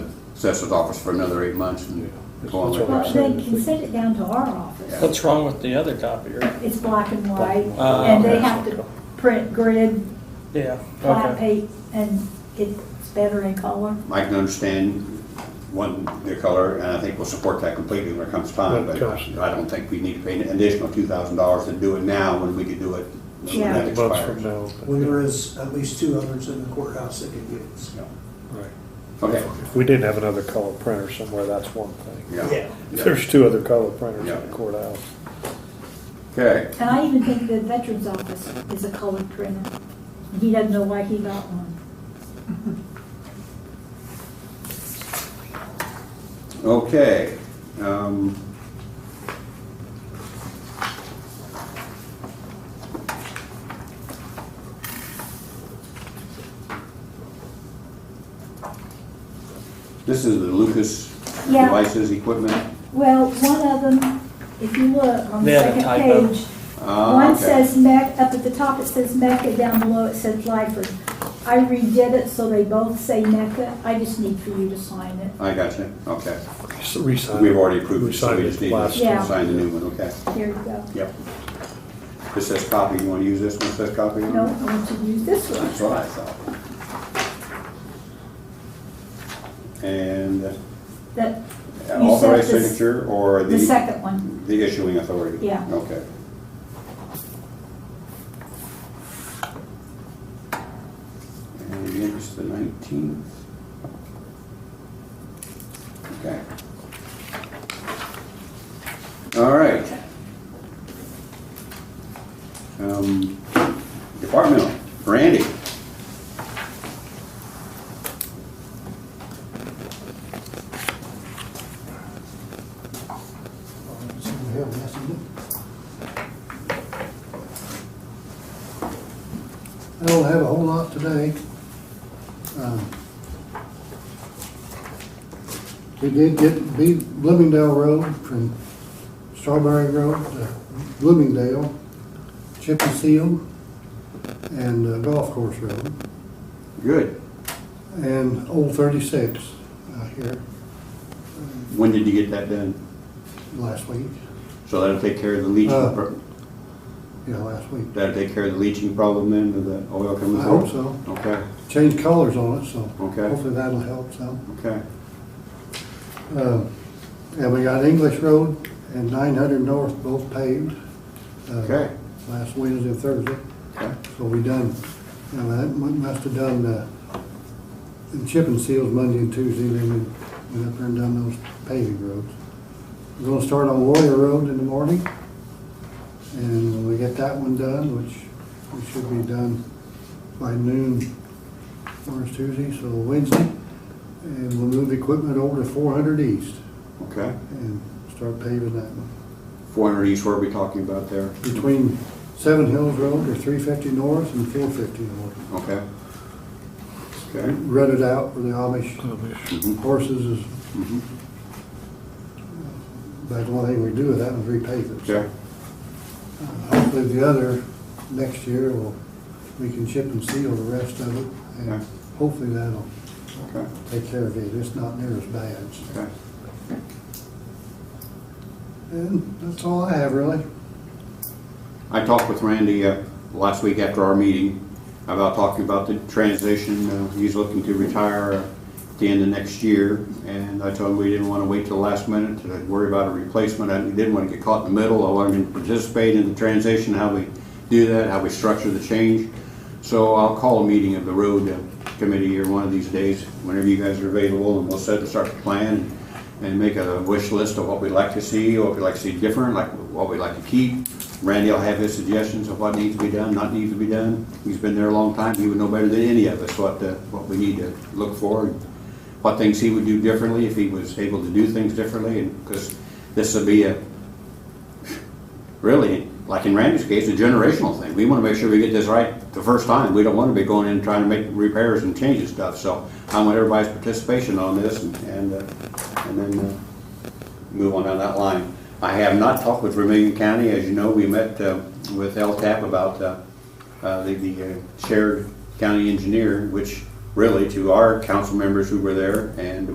assessor's office for another eight months and go on. That's with all it. right. Well, they can send it down to our office. What's wrong with the other copier? It's black and white, Uh, and they okay. have to print grid, Yeah, flat okay. page, and it's better in color. I can understand one, the color, and I think we'll support that completely when it comes time, When it but comes. I don't think we need to pay an additional two thousand dollars to do it now when we could do it when Yeah. that Months from expires. now. When there is at least two others in the courthouse that can use. Yeah. Right. Okay. If we didn't have another color printer somewhere, that's one thing. Yeah. If there's two other color printers in Yeah. the courthouse. Okay, And I even think the veterans office is a colored printer. He doesn't know why he got one. okay. Um, This is the Lucas Yeah. devices, equipment? Well, one of them, if you look on They the had a second typo. page, Ah, one okay. says Mecca, up at the top it says Mecca, down below it says Lyford. I redid it so they both say Mecca. I just need for you to sign it. I got you, okay. Just Resign. We've already approved it, so Resign we it just need last- to Yeah. sign the new one, okay? Here you go. Yep. This says copy, you wanna use this one, It says copy? on it? No, I want you to use this one. That's what I thought. And uh, That, You said authorized this- signature or the? the second one. The issuing authority? Yeah. Okay. And again, it's the nineteenth. Okay. All right. Um, departmental, Randy. Someone else has to do it. I don't have a whole lot today. Um, We did get B- Bloomingdale Road from Strawberry Road to Bloomingdale, Chip and Seal, and uh, Golf Course Road, Good. and Old Thirty-Six out here When did you get that done? last week, So that'll take care of the leaching, Uh, pro- yeah, last week. that'll take care of the leaching problem then, with the oil coming I through? hope so. Okay, Change colors on it, so Okay. hopefully that'll help some. okay. Uh, And we got English Road and nine hundred north both paved. uh, Okay. Last Wednesday and Thursday, Okay. so we done, now that mu- must have done, uh, the chip and seals Monday and Tuesday, then we went up there and done those paving roads. We're gonna start on Warrior Road in the morning, and when we get that one done, which we should be done by noon, or it's Tuesday, so Wednesday. And we'll move the equipment over to four hundred east Okay. and start paving that one. Four hundred east, what are we talking about there? Between Seven Hills Road or three fifty north and four fifty north. Okay. Okay. Rut it out where the Amish Mhm. horses is, Mhm. but the one thing we do with that is repave it. Okay, Uh, Hopefully the other, next year, we'll, we can chip and seal the rest of it. And Okay. hopefully that'll okay, take care of it. It's not near as bad. okay. And that's all I have really. I talked with Randy uh, last week after our meeting about talking about the transition. Uh, He's looking to retire uh, at the end of next year, and I told him we didn't want to wait till the last minute to worry about a replacement. I didn't want to get caught in the middle. I wanted him to participate in the transition, how we do that, how we structure the change. So I'll call a meeting of the road uh, committee or one of these days, whenever you guys are available, and we'll set and start to plan and make a wish list of what we'd like to see, what we'd like to see different, like what we'd like to keep. Randy will have his suggestions of what needs to be done, not needs to be done. He's been there a long time, he would know better than any of us what, uh, what we need to look for and what things he would do differently if he was able to do things differently, and, because this would be a, really, like in Randy's case, a generational thing. We want to make sure we get this right the first time. We don't want to be going in and trying to make repairs and changing stuff. So I want everybody's participation on this and, and, uh, and then uh, move on down that line. I have not talked with Vermillion County. As you know, we met uh, with LTAP about uh, uh, the, the uh, shared county engineer, which really to our council members who were there and